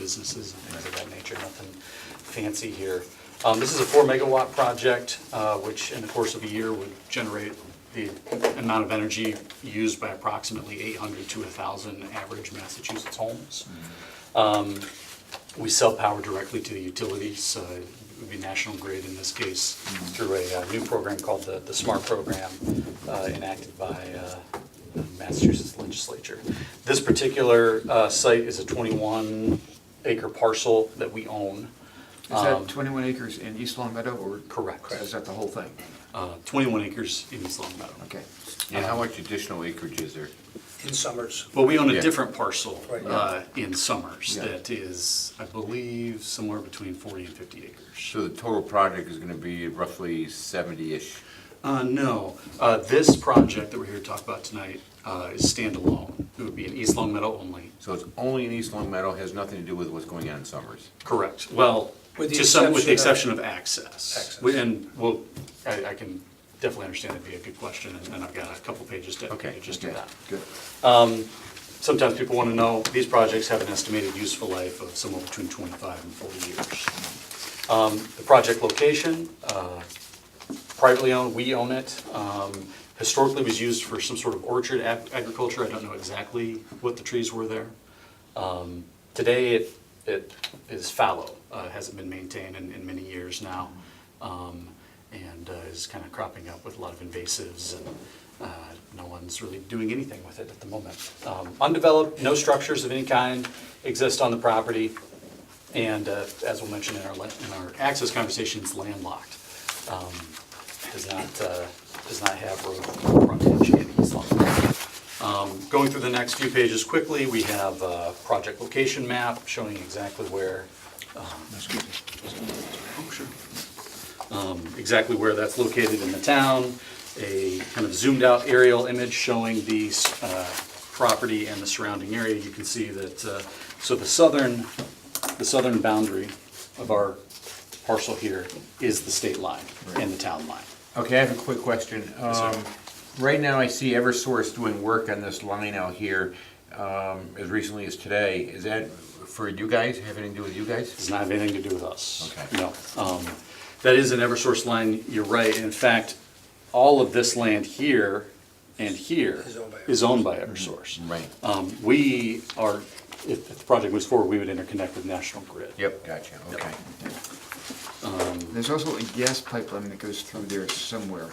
businesses and things of that nature, nothing fancy here. Um, This is a four megawatt project, uh, which in the course of a year would generate the amount of energy used by approximately 800 to 1,000 average Massachusetts homes. Um, We sell power directly to the utilities, uh, it would be National Grid in this case, through a uh, new program called the the SMART program uh, enacted by uh, the Massachusetts legislature. This particular uh, site is a 21 acre parcel that we own. Is that Um, 21 acres in East Long Meadow or? Correct. Is that the whole thing? uh, 21 acres in East Long Meadow. Okay. And how much additional acreage is there? in Summers. But we own a Yeah. different parcel Right. uh, in Summers Yeah. that is, I believe, somewhere between 40 and 50 acres. So the total project is gonna be roughly seventy-ish. Uh, no, uh, this project that we're here to talk about tonight uh, is standalone. It would be in East Long Meadow only. So it's only in East Long Meadow, has nothing to do with what's going on in Summers. Correct. Well, With the to some, with the exception exception of access. Access. We- And, well, I, I can definitely understand that'd be a good question, and and I've got a couple pages Okay, dedicated just to Okay, that. Good. Sometimes people want to know, these projects have an estimated useful life of somewhere between 25 and 40 years. Um, The project location, uh, privately owned, we own it. Um, Historically was used for some sort of orchard ag- agriculture. I don't know exactly what the trees were there. Um, Today, it, it is fallow, uh, hasn't been maintained in, in many years now, um, and uh, is kind of cropping up with a lot of invasives, and uh, no one's really doing anything with it at the moment. Um, Undeveloped, no structures of any kind exist on the property, and uh, as we'll mention in our, le- in our access conversation, it's landlocked. Um, Does not, uh, does not have road frontage in East Long. Um, Going through the next few pages quickly, we have a project location map showing exactly where, um, exactly where that's located in the town, a kind of zoomed-out aerial image showing the uh, property and the surrounding area. You can see that, uh, so the southern, the southern boundary of our parcel here is the state line and the town line. Okay, I have a quick question. sir. Um, right now I see Eversource doing work on this line out here, um, as recently as today. Is that for you guys, have anything to do with you guys? does not have anything to do with us. Okay. No. Um, That is an Eversource line, you're right. In fact, all of this land here and here Is owned by is owned by Eversource. Right. Um, We are, if if the project moves forward, we would interconnect with National Grid. Yep, gotcha, okay. There's also a gas pipeline that goes through there somewhere.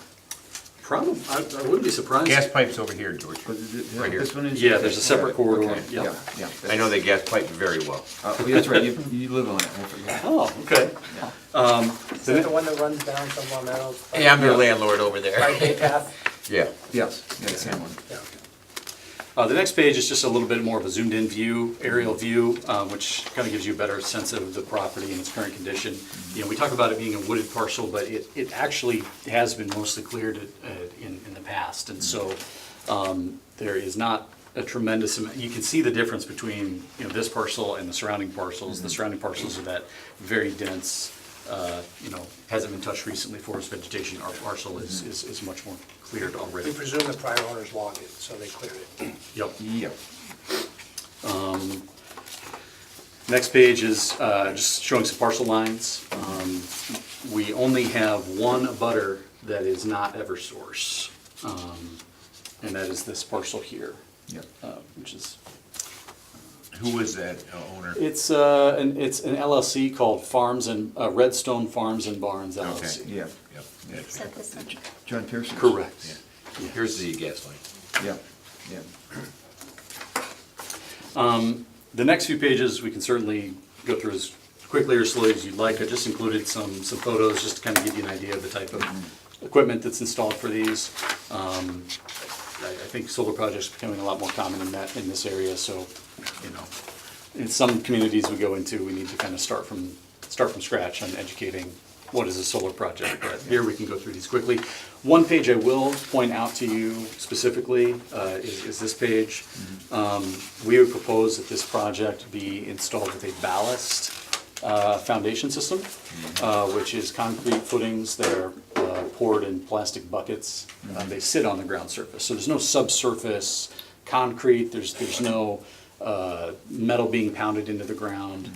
Probably, I I wouldn't be surprised. Gas pipe's over here, George, But is it- right here. this one is- Yeah, there's a separate corridor, Okay, yeah. Yeah, yeah. I know they gas pipe very well. Uh, well, That's right, you, you live on it. I forgot. Oh, okay. Yeah. Is that the one that runs down from Long Meadow? Hey, I'm your landlord over Right, there. Bay uh, Path? Yeah. Yes, that's that one. Yeah. Uh, The next page is just a little bit more of a zoomed-in view, aerial view, um, which kind of gives you a better sense of the property and its current condition. You know, we talk about it being a wooded parcel, but it, it actually has been mostly cleared uh, in, in the past. And so um, there is not a tremendous, amount you can see the difference between, you know, this parcel and the surrounding parcels. The surrounding parcels are that very dense, uh, you know, hasn't been touched recently, forest vegetation. Our parcel is, is is much more cleared We already. presume the prior owners logged it, so they cleared it. Yep. Yeah. Next page is uh, just showing some parcel lines. Um, We only have one abutter that is not Eversource, um, and that is this parcel here, Yeah. uh, which is, Who was that uh, owner? it's, uh, an- it's an LLC called Farms and, uh, Redstone Farms and Barns Okay. LLC. Yeah, Yep, gotcha. Is that this one? John Pearson. Correct. Yeah. Here's the gas line. Yeah, yeah. The next few pages, we can certainly go through as quickly or slowly as you'd like. I just included some, some photos just to kind of give you an idea of the type of equipment that's installed for these. Um, I, I think solar projects are becoming a lot more common in that, in this area, so, you know. In some communities we go into, we need to kind of start from, start from scratch on educating what is a solar project. But here we can go through these quickly. One page I will point out to you specifically uh, is, is this page. Um, We would propose that this project be installed with a ballast uh, foundation system, uh, which is concrete footings that are uh, poured in plastic buckets. Uh, They sit on the ground surface, so there's no subsurface concrete, there's, there's no uh, metal being pounded into the ground.